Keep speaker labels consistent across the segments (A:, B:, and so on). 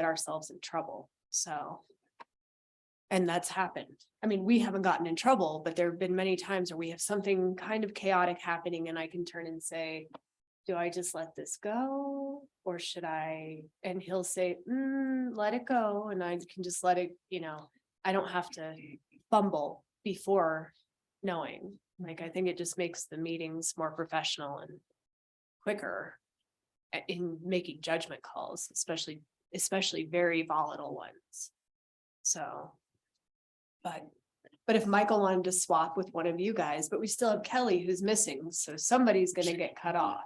A: get ourselves in trouble, so. And that's happened. I mean, we haven't gotten in trouble, but there have been many times where we have something kind of chaotic happening and I can turn and say. Do I just let this go or should I? And he'll say, "Mm, let it go. And I can just let it, you know, I don't have to fumble before knowing. Like, I think it just makes the meetings more professional and quicker a- in making judgment calls, especially, especially very volatile ones. So. But, but if Michael wanted to swap with one of you guys, but we still have Kelly who's missing, so somebody's gonna get cut off.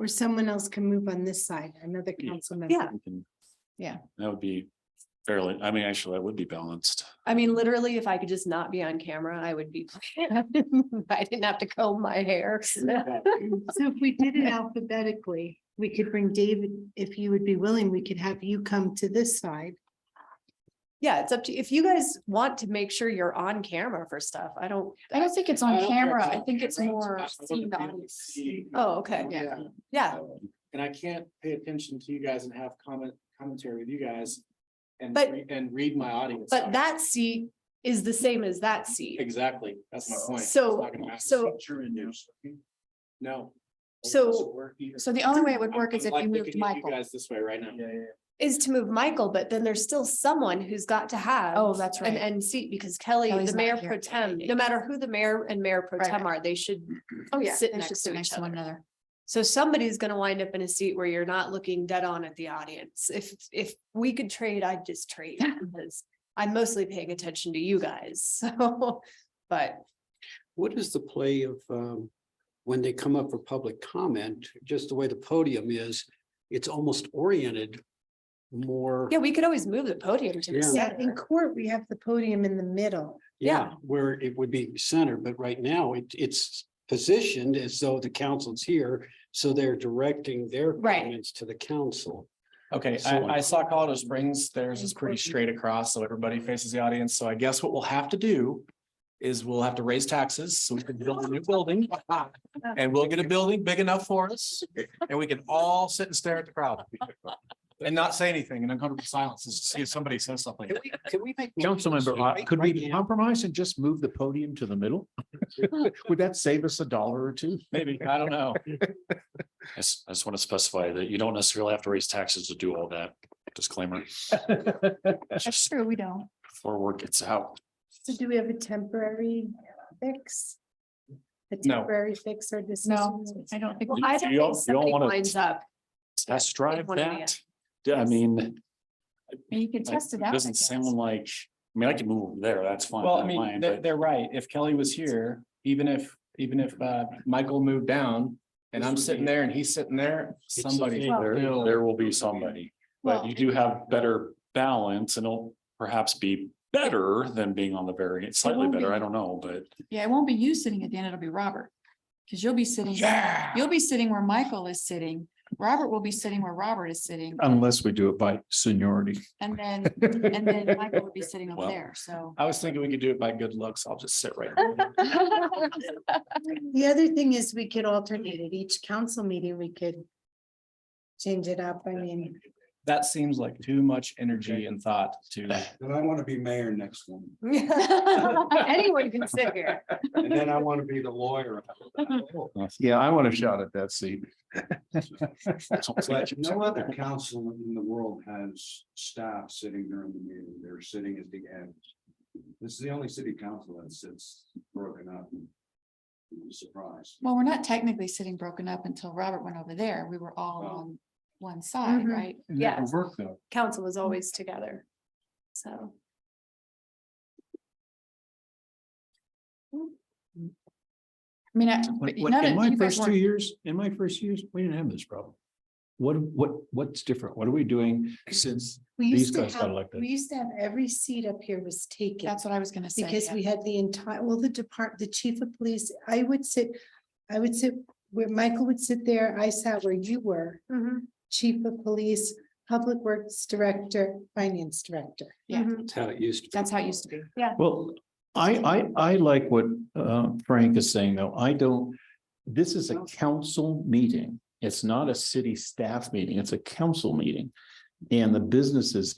B: Or someone else can move on this side, another
C: Yeah.
B: council member.
A: Yeah.
C: we can-
B: Yeah.
C: That would be fairly, I mean, actually, that would be balanced.
A: I mean, literally, if I could just not be on camera, I would be. I didn't have to comb my hair.
B: So if we did it alphabetically, we could bring David, if you would be willing, we could have you come to this side.
A: Yeah, it's up to, if you guys want to make sure you're on camera for stuff, I don't,
D: I don't think it's on camera. I think it's more seen the audience.
A: oh, okay,
D: Yeah.
A: yeah,
E: And I can't pay attention to you guys and have comment, commentary with you guys. And,
A: But-
E: re- and read my audience.
A: but that seat is the same as that seat.
E: Exactly, that's my point. It's
A: So-
E: not gonna happen.
A: so-
E: No.
A: So-
D: So the only way it would work is if you moved Michael.
E: Guys this way right now. Yeah, yeah.
A: Is to move Michael, but then there's still someone who's got to have.
D: Oh, that's
A: An
D: right.
A: end seat because Kelly,
D: Kelly's
A: the
D: not
A: mayor
D: here.
A: pro tem, no matter who the mayor and mayor pro
D: Right,
A: tem are, they should
D: Oh, yeah.
A: sit
D: They should
A: next
D: sit
A: to
D: next
A: each
D: to one
A: other.
D: another.
A: So somebody's gonna wind up in a seat where you're not looking dead on at the audience. If, if we could trade, I'd just trade. because I'm mostly paying attention to you guys, so, but
F: What is the play of um, when they come up for public comment, just the way the podium is, it's almost oriented more.
A: yeah, we could always move the podium to the
F: Yeah.
B: Yeah, in
A: center.
B: court, we have the podium in the middle.
A: yeah.
F: Where it would be centered, but right now it it's positioned as though the council's here, so they're directing their
A: Right.
F: comments to the council.
E: Okay,
F: So-
E: I, I saw Colorado Springs, theirs is pretty straight across, so everybody faces the audience, so I guess what we'll have to do. Is we'll have to raise taxes, so we can build a new building, and we'll get a building big enough for us, and we can all sit and stare at the crowd. And not say anything in uncomfortable silences, to see if somebody says something.
F: Can we- can we make?
G: Councilmember,
F: motions?
G: Ott, could we
F: Right now.
G: compromise and just move the podium to the middle? Would that save us a dollar or two?
E: Maybe, I don't know.
C: I s- I just want to specify that you don't necessarily have to raise taxes to do all that disclaimer.
D: That's true. We don't.
C: Before word gets out.
B: So do we have a temporary fix? A
E: No.
B: temporary fix or decision?
D: No, I don't think.
A: Well, I
C: You all-
A: don't think
C: you all
A: somebody
C: wanna-
A: winds up.
C: Test drive
A: one or the
C: that. Yeah, I mean,
D: And you can
C: like,
D: test
C: it
D: it out. I
C: doesn't
D: guess.
C: sound like, I mean, I can move over there. That's fine.
E: Well, I
C: don't
E: mean,
C: mind,
E: they're,
C: but-
E: they're right. If Kelly was here, even if, even if, uh, Michael moved down and I'm sitting there and he's sitting there,
F: It's
E: somebody.
F: okay,
C: There,
E: will-
C: there will be somebody, but
D: Well-
C: you do have better balance and it'll perhaps be better than being on the very, it's slightly
D: will
C: better,
D: be.
C: I don't know, but.
D: Yeah, it won't be you sitting at the end. It'll be Robert. Because you'll be sitting,
E: Yeah.
D: you'll be sitting where Michael is sitting. Robert will be sitting where Robert is sitting.
G: Unless we do it by seniority.
D: And then, and then Michael would be sitting over
C: Well.
D: there. So.
E: I was thinking we could do it by good looks. I'll just sit right. there.
B: The other thing is we could alternate at each council meeting, we could change it up. I mean,
E: That seems like too much energy and thought to.
H: Then I want to be mayor next one,
A: Anyone can sit here.
H: and then I want to be the lawyer.
G: Yeah, I want a shot at that seat.
H: But no other council in the world has staff sitting during the meeting, they're sitting at the end. This is the only city council that sits broken up. You'd be Surprised.
D: Well, we're not technically sitting broken up until Robert went over there. We were all
H: Well.
D: on one side,
A: Mhm.
D: right?
A: Yeah.
G: Work though.
A: Council was always together, so.
D: I mean, I. but
G: Like,
D: none
G: what- In
D: of-
G: my
D: you guys
G: first two
D: weren't-
G: years, in my first years, we didn't have this problem. What, what, what's different? What are we doing since?
B: we
G: These
B: used to
G: guys got
B: have,
G: elected.
B: we used to have every seat up here was taken.
D: That's what I was gonna say.
B: Because
D: yeah.
B: we had the entire, well, the depart, the chief of police, I would sit, I would sit where Michael would sit there, I sat where you were.
D: Mm-hmm.
A: mhm,
B: Chief of police, public works director, finance director.
D: Yeah.
A: mhm.
F: That's how it used to. be.
D: That's how it used to be.
G: Well, I, I, I like what uh, Frank is saying, though. I don't, this is a council meeting. It's not a city staff meeting. It's a council meeting.
B: Mm.
E: And the businesses